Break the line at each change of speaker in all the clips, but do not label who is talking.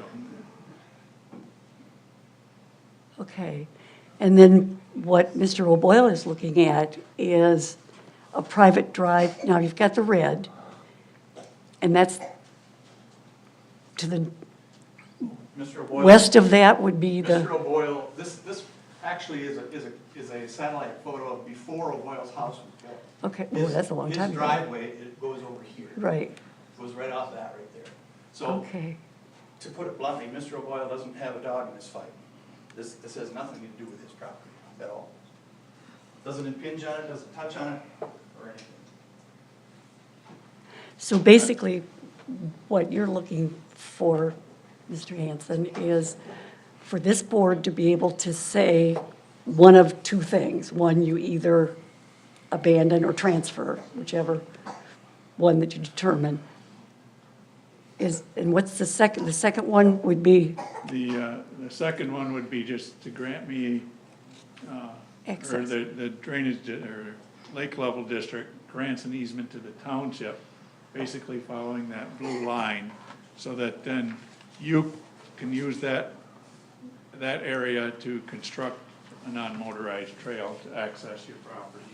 shown.
Okay. And then what Mr. O'Boyle is looking at is a private drive. Now, you've got the red, and that's to the
Mr. O'Boyle.
west of that would be
Mr.
the,
O'Boyle, this, this actually is a, is a, is a satellite photo of before O'Boyle's house was built.
okay, oh,
His-
that's a long time
His
ago.
driveway, it goes over here,
Right,
goes right off that right there. So,
okay,
to put it bluntly, Mr. O'Boyle doesn't have a dog in this fight. This, this has nothing to do with his property at all. Doesn't impinge on it, doesn't touch on it, or anything.
so basically, what you're looking for, Mr. Hanson, is for this board to be able to say one of two things. One, you either abandon or transfer, whichever one that you determine. Is, and what's the second, the second one would be
The, uh, the second one would be just to grant me, uh, or
Access.
the the drainage, di- or lake level district grants an easement to the township, basically following that blue line, so that then you can use that, that area to construct a non-motorized trail to access your property.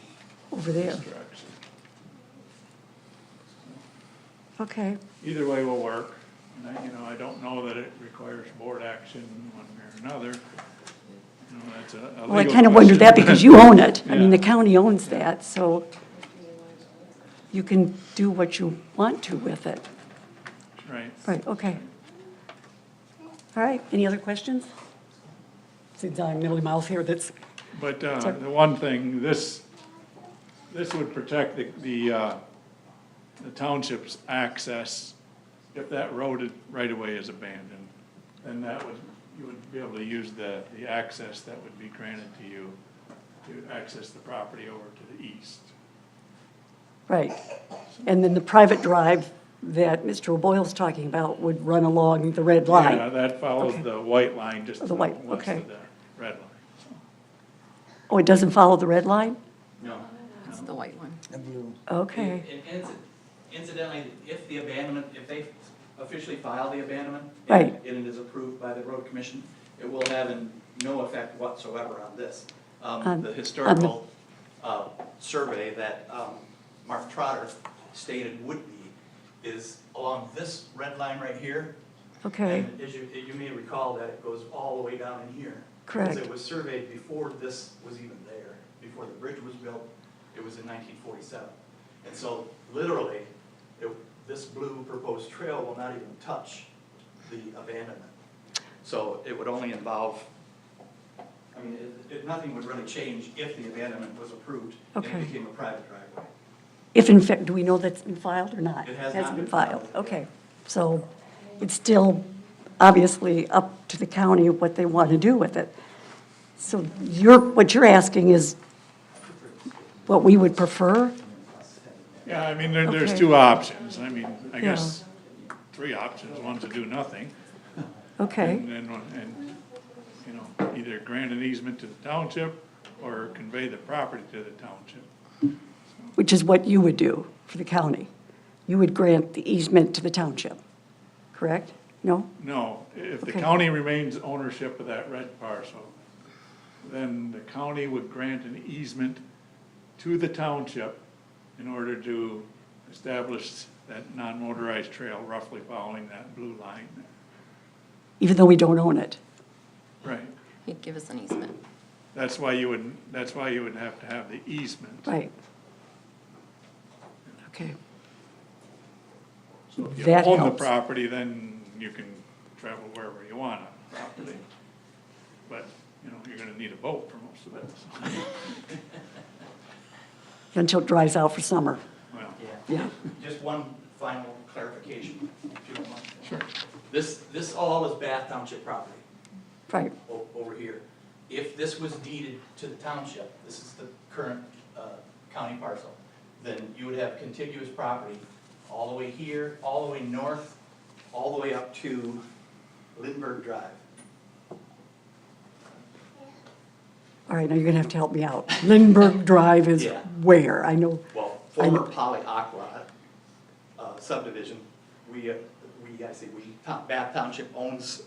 over there.
Construction.
Okay,
Either way will work, and I, you know, I don't know that it requires board action one way or another. You know, that's a- a
well, I
legal
kind of wondered that
question.
because you own it. I mean, the
Yeah.
county owns that, so you can do what you want to with it.
Right,
Right, okay. All right, any other questions? Since I'm middle of mouth here, that's,
but, uh,
Sorry.
the one thing, this, this would protect the, the, uh, the township's access. If that road is- right away is abandoned, then that would, you would be able to use the, the access that would be granted to you to access the property over to the east.
right. And then the private drive that Mr. O'Boyle's talking about would run along the red
Yeah,
line. Oh,
that follows the white line, just
The
to the
white,
west
okay.
of the red line.
Oh, it doesn't follow the red line?
No.
It's the white one.
Oh, Okay,
And- and inci- Incidentally, if the abandonment, if they officially file the abandonment.
Right.
And it is approved by the road commission, it will have an- no effect whatsoever on this.
On-
Um, The historical uh, survey that um, Mark Trotter stated would be is along this red line right here.
okay,
And as you, you may recall that it goes all the way down in here.
Correct.
Because it was surveyed before this was even there, before the bridge was built, it was in nineteen forty-seven. And so literally, it, this blue proposed trail will not even touch the abandonment. So it would only involve, I mean, it, it, nothing would really change if the abandonment was approved and
Okay.
it became a private driveway.
if in fact, do we know that's been filed or not?
It has not
Hasn't been
been
filed,
filed.
okay. So it's still obviously up to the county what they want to do with it. So you're, what you're asking is what we would prefer?
Yeah, I mean, there, there's
Okay.
two options, I mean, I
Yeah.
guess, three options, one to do nothing.
Okay.
And then, one- and, you know, either grant an easement to the township or convey the property to the township.
Which is what you would do for the county. You would grant the easement to the township, correct? No?
No, if the
Okay.
county remains ownership of that red parcel, then the county would grant an easement to the township in order to establish that non-motorized trail roughly following that blue line.
Even though we don't own it.
Right,
He'd give us an easement.
that's why you would, that's why you would have to have the easement.
Right. Okay.
So if you
That
own the
helps.
property, then you can travel wherever you want on the property. But, you know, you're gonna need a boat for most of it, so,
Until it dries out for summer.
well,
Yeah.
Just one final clarification, if you don't mind.
sure.
This, this all is Bath Township property.
Right.
o- over here. If this was deeded to the township, this is the current uh, county parcel, then you would have contiguous property all the way here, all the way north, all the way up to Lindbergh Drive.
All right, now you're gonna have to help me out. Lindbergh Drive is
Yeah.
where? I know,
Well,
I know.
former Poly Aqua uh, subdivision, we, uh, we we, I say we, Tom- Bath Township owns